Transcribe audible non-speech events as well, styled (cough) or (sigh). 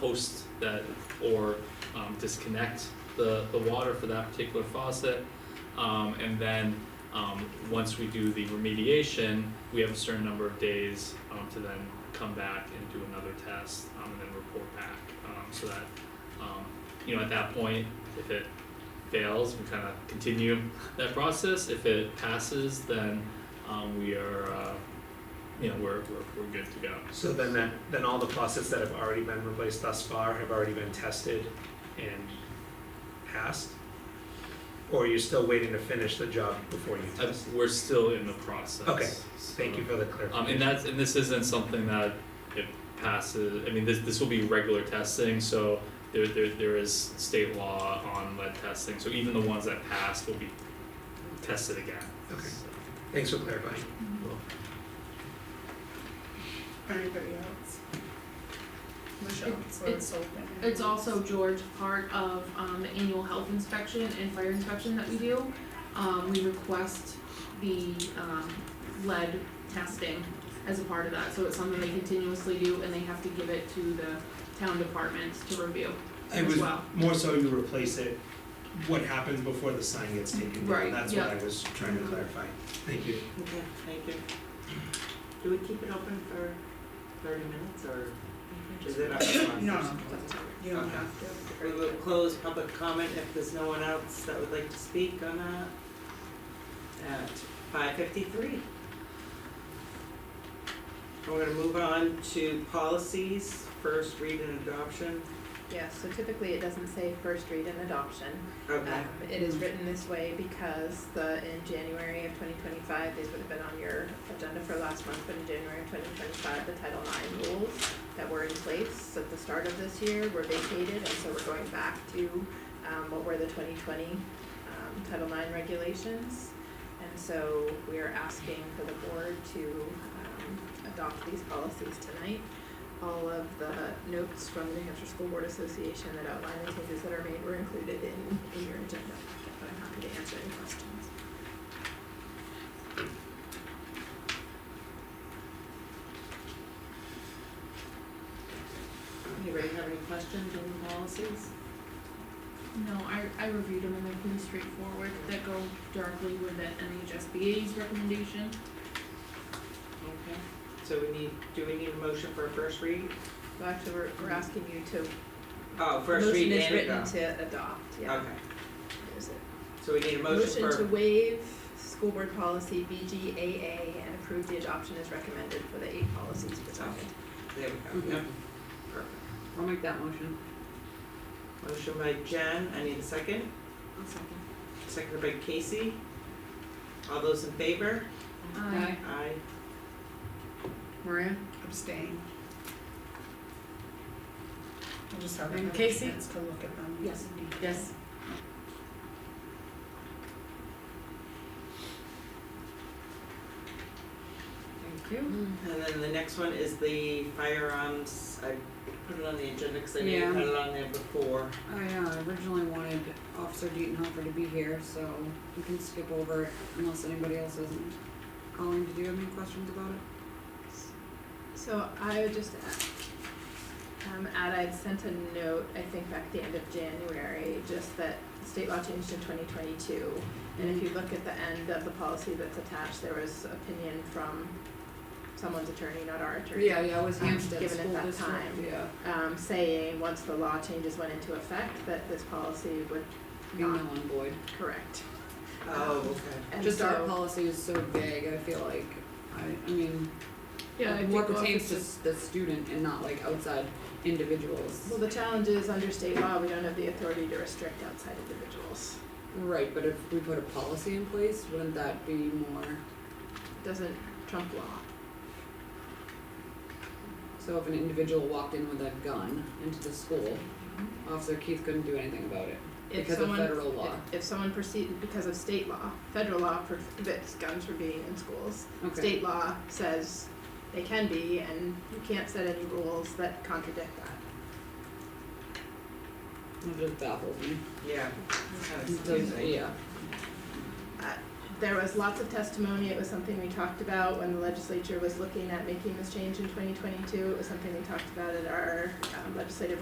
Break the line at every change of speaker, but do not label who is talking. post that or um, disconnect the, the water for that particular faucet. Um, and then, um, once we do the remediation, we have a certain number of days, um, to then come back and do another test, um, and then report back. Um, so that, um, you know, at that point, if it fails, we kind of continue that process. If it passes, then, um, we are, uh, you know, we're, we're, we're good to go.
So then that, then all the faucets that have already been replaced thus far have already been tested and passed? Or you're still waiting to finish the job before you
Uh,
test?
We're still in the process.
Okay.
so-
Thank you for the
Um, and
clarification.
that's, and this isn't something that it passes, I mean, this, this will be regular testing, so there, there, there is state law on lead testing, so even the ones that pass will be tested again.
Okay.
So-
Thanks for clarifying.
Anybody else? Michelle,
It's-
so it's open.
It's also George, part of um the annual health inspection and fire inspection that we do. Um we request the um lead testing as a part of that, so it's something they continuously do and they have to give it to the town departments to review
It
as
was
well.
more so you replace it, what happens before the sign gets taken down,
Right,
that's
yeah.
what I was trying to clarify, thank you.
Okay, thank you. Do we keep it open for thirty minutes or is it our (coughs) response?
No, no, that's all right. you don't have to.
We will close public comment if there's no one else that would like to speak on that at five fifty-three. We're gonna move on to policies, first read and adoption.
Yeah, so typically it doesn't say first read and adoption.
Okay,
Um, it is written this way because the, in January of twenty twenty-five, these would have been on your agenda for last month, but in January of twenty twenty-five, the Title IX rules that were in place at the start of this year were vacated, and so we're going back to, um, what were the twenty twenty, um, Title IX regulations. And so we are asking for the board to, um, adopt these policies tonight all of the notes from the New Hampshire School Board Association that outline the changes that are made were included in, in your agenda, but I'm happy to answer any questions.
anybody have any questions on the policies?
No, I I reviewed them and they're pretty straightforward, that go directly with the NHSBA's recommendation.
Okay, so we need, do we need a motion for a first read?
Well, actually, we're, we're asking you to,
Oh, first
motion
read
is
and
written
adopt.
to adopt, yeah.
Okay,
There's a
so we need a motion for.
to waive school board policy BGAA and approve the adoption as recommended for the eight policies presented.
There we go, yeah. Perfect.
I'll make that motion.
Motion by Jen, I need a second,
I'll second.
seconded by Casey. All those in favor?
Aye.
Aye.
Maria?
Abstain. I just haven't
And
had a
Casey?
chance to look at them.
Yes. Yes. Thank you.
Mm-hmm.
And then the next one is the firearms, I put it on the agenda because I knew you
Yeah.
had it on there before.
I uh, originally wanted Officer Deaton Hopper to be here, so we can skip over it unless anybody else isn't calling. Did you have any questions about it?
So I would just add, um, add, I'd sent a note, I think back at the end of January, just that the state law changed in twenty twenty-two. And if you look at the end of the policy that's attached, there was opinion from someone's attorney, not our attorney.
yeah, it was
Um, given at that time.
yeah.
Um, saying, once the law changes went into effect, that this policy would
Be null and void.
correct.
Oh, okay.
And
Just our
so-
policy is so vague, I feel like, I, I mean,
Yeah, I think
what pertains to
officers-
s- the student and not like outside individuals.
Well, the challenge is, under state law, we don't have the authority to restrict outside individuals.
Right, but if we put a policy in place, wouldn't that be more,
Doesn't trump law.
so if an individual walked in with a gun into the school, Officer Keith couldn't do anything about it
If
because of
someone
federal law.
If- If someone proceed, because of state law, federal law prohibits guns from being in schools.
Okay.
State law says they can be, and you can't set any rules that contradict that.
It just baffles me.
Yeah, it's kind of
It does-
confusing.
yeah.
There was lots of testimony, it was something we talked about when the legislature was looking at making this change in twenty twenty-two. It was something we talked about at our um, legislative